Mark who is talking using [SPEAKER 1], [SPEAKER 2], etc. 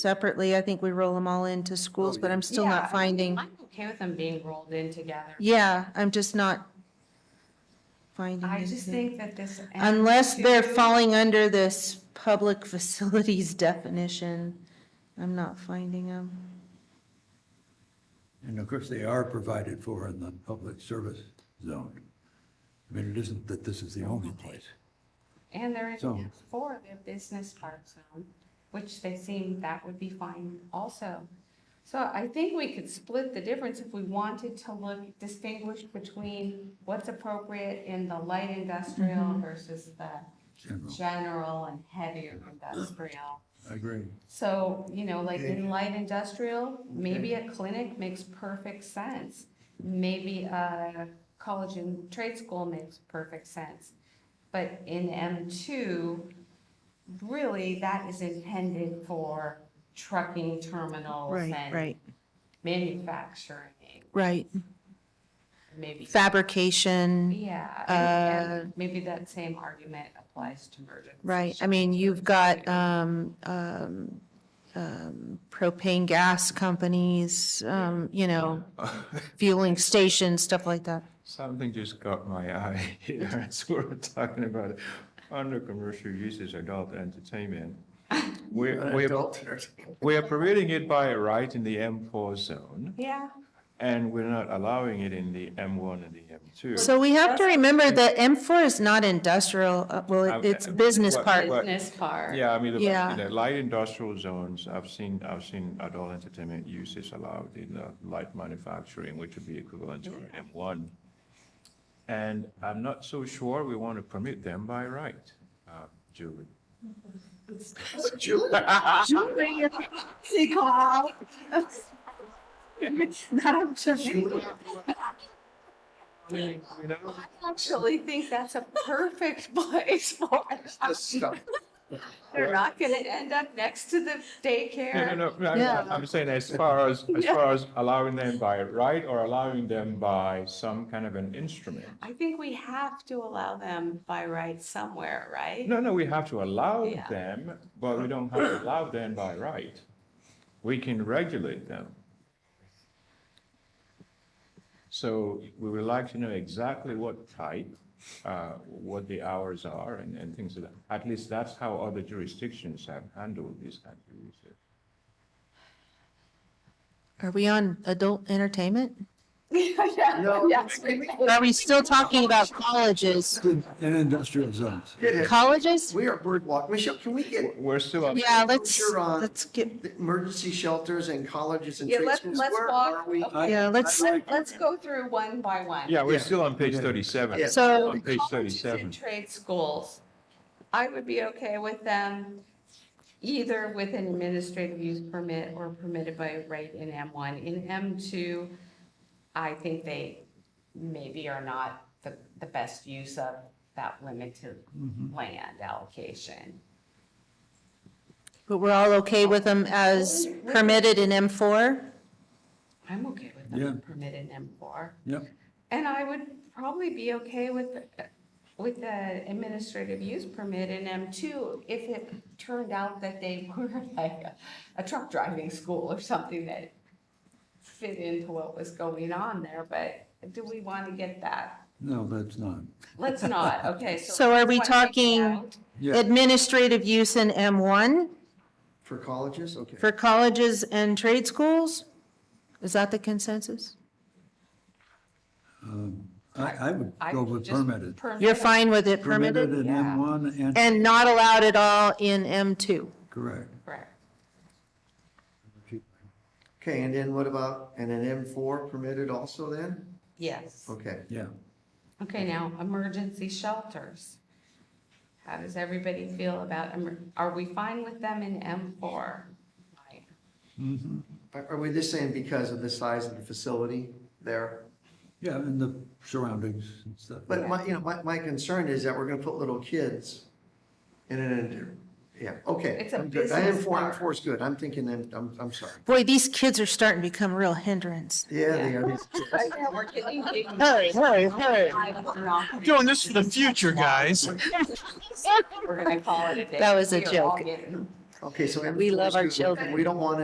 [SPEAKER 1] separately. I think we roll them all into schools, but I'm still
[SPEAKER 2] Oh, Yeah, I
[SPEAKER 1] not
[SPEAKER 2] mean,
[SPEAKER 1] finding.
[SPEAKER 2] I'm okay with them being rolled in together.
[SPEAKER 1] Yeah, I'm just not finding
[SPEAKER 2] I just
[SPEAKER 1] anything.
[SPEAKER 2] think that this.
[SPEAKER 1] Unless they're
[SPEAKER 2] M2
[SPEAKER 1] falling under this public facilities definition, I'm not finding them.
[SPEAKER 3] And of course, they are provided for in the public service zone. I mean, it isn't that this is the only place.
[SPEAKER 2] And they're
[SPEAKER 3] So-
[SPEAKER 2] in for the business park zone, which they seem that would be fine also. So I think we could split the difference if we wanted to look, distinguish between what's appropriate in the light industrial versus the
[SPEAKER 3] General,
[SPEAKER 2] general and heavier industrial.
[SPEAKER 3] I agree.
[SPEAKER 2] So, you know, like in light industrial, maybe a clinic makes perfect sense. Maybe a college and trade school makes perfect sense. But in M2, really, that is intended for trucking terminals
[SPEAKER 1] Right,
[SPEAKER 2] and
[SPEAKER 1] right,
[SPEAKER 2] manufacturing,
[SPEAKER 1] right.
[SPEAKER 2] maybe.
[SPEAKER 1] Fabrication,
[SPEAKER 2] Yeah, and- and maybe that same argument applies to merchants.
[SPEAKER 1] Uh, right. I mean, you've got um, um, um, propane gas companies, um, you know, fueling stations, stuff like that.
[SPEAKER 4] Something just caught my eye here as we were talking about it. Under commercial uses, adult entertainment. We're, we're, we're permitting it by right in the M4 zone,
[SPEAKER 2] Yeah.
[SPEAKER 4] and we're not allowing it in the M1 and the M2.
[SPEAKER 1] So we have to remember that M4 is not industrial, uh, well,
[SPEAKER 4] Um,
[SPEAKER 1] it's business
[SPEAKER 4] what-
[SPEAKER 1] park.
[SPEAKER 4] But-
[SPEAKER 2] Business park.
[SPEAKER 4] Yeah, I mean, the,
[SPEAKER 1] Yeah.
[SPEAKER 4] in the light industrial zones, I've seen, I've seen adult entertainment uses allowed in uh, light manufacturing, which would be equivalent to an M1. And I'm not so sure we want to permit them by right, uh, Julie. Julie. You know?
[SPEAKER 2] I actually think that's a perfect place for them. They're not gonna end up next to the
[SPEAKER 4] No, no,
[SPEAKER 2] daycare.
[SPEAKER 4] no, no, I'm,
[SPEAKER 1] Yeah.
[SPEAKER 4] I'm saying as far as, as
[SPEAKER 2] Yeah.
[SPEAKER 4] far as allowing them by right or allowing them by some kind of an instrument.
[SPEAKER 2] I think we have to allow them by right somewhere, right?
[SPEAKER 4] No, no, we have to allow
[SPEAKER 2] Yeah.
[SPEAKER 4] them, but we don't have to allow them by right. We can regulate them. So we would like to know exactly what type, uh, what the hours are and, and things like that. At least that's how other jurisdictions have handled these kinds of issues.
[SPEAKER 1] Are we on adult entertainment?
[SPEAKER 2] No.
[SPEAKER 1] Are we still talking about colleges?
[SPEAKER 3] In industrial zones.
[SPEAKER 5] It is.
[SPEAKER 1] Colleges?
[SPEAKER 5] We are bird walk. Michelle, can we get
[SPEAKER 4] We're still, on-
[SPEAKER 1] Yeah, let's,
[SPEAKER 5] Sure on.
[SPEAKER 1] let's get,
[SPEAKER 5] the emergency shelters and colleges and
[SPEAKER 2] Yeah,
[SPEAKER 5] trade
[SPEAKER 2] let's-
[SPEAKER 5] schools?
[SPEAKER 2] let's
[SPEAKER 5] Where
[SPEAKER 2] walk.
[SPEAKER 5] are we?
[SPEAKER 2] Okay.
[SPEAKER 1] yeah, let's,
[SPEAKER 5] I'd like-
[SPEAKER 2] Let's go through one by one.
[SPEAKER 4] yeah,
[SPEAKER 5] Yeah.
[SPEAKER 4] we're still on page thirty-seven.
[SPEAKER 5] Yeah.
[SPEAKER 1] so,
[SPEAKER 4] On page
[SPEAKER 2] Colleges and
[SPEAKER 4] thirty-seven.
[SPEAKER 2] trade schools, I would be okay with them either with an administrative use permit or permitted by right in M1. In M2, I think they maybe are not the, the best use of that limited land allocation.
[SPEAKER 1] but we're all okay with them as permitted in M4?
[SPEAKER 2] I'm okay with
[SPEAKER 3] Yeah.
[SPEAKER 2] them permitted in M4.
[SPEAKER 3] Yep.
[SPEAKER 2] And I would probably be okay with, with the administrative use permit in M2 if it turned out that they were like a- a truck driving school or something that fit into what was going on there, but do we want to get that?
[SPEAKER 3] No, that's not.
[SPEAKER 2] Let's not, okay, so.
[SPEAKER 1] So are we
[SPEAKER 2] let's wipe it
[SPEAKER 1] talking-
[SPEAKER 2] out.
[SPEAKER 3] Yeah,
[SPEAKER 1] Administrative use in M1
[SPEAKER 5] For colleges? Okay.
[SPEAKER 1] for colleges and trade schools? Is that the consensus?
[SPEAKER 3] I, I would
[SPEAKER 2] I
[SPEAKER 3] go with
[SPEAKER 2] just
[SPEAKER 3] permitted.
[SPEAKER 2] permit
[SPEAKER 1] You're
[SPEAKER 2] it.
[SPEAKER 1] fine with it
[SPEAKER 3] Permitted
[SPEAKER 1] permitted?
[SPEAKER 3] in
[SPEAKER 2] Yeah.
[SPEAKER 3] M1 and,
[SPEAKER 1] And not allowed at all in M2?
[SPEAKER 3] correct.
[SPEAKER 2] Correct.
[SPEAKER 5] Okay, and then what about, and an M four permitted also then?
[SPEAKER 2] Yes.
[SPEAKER 5] Okay.
[SPEAKER 3] Yeah.
[SPEAKER 2] Okay, now, emergency shelters. How does everybody feel about, emer- are we fine with them in M4? Like,
[SPEAKER 5] Are, are we just saying because of the size of the facility there?
[SPEAKER 3] Yeah, and the surroundings and stuff.
[SPEAKER 5] But my, you know, my, my concern is that we're gonna put little kids in an, yeah, okay.
[SPEAKER 2] It's a
[SPEAKER 5] I'm good. I- M4
[SPEAKER 2] business park.
[SPEAKER 5] M four is good. I'm thinking, I'm, I'm, I'm sorry.
[SPEAKER 1] Boy, these kids are starting to become a real hindrance.
[SPEAKER 5] Yeah, they are.
[SPEAKER 2] We're getting big.
[SPEAKER 1] Hey, hey, hey.
[SPEAKER 6] Doing this for the future, guys.
[SPEAKER 2] We're gonna call it a day.
[SPEAKER 1] That was a
[SPEAKER 2] We are all
[SPEAKER 1] joke.
[SPEAKER 2] getting
[SPEAKER 5] Okay, so.
[SPEAKER 6] We love our
[SPEAKER 5] enforcement,
[SPEAKER 6] children.
[SPEAKER 5] We don't want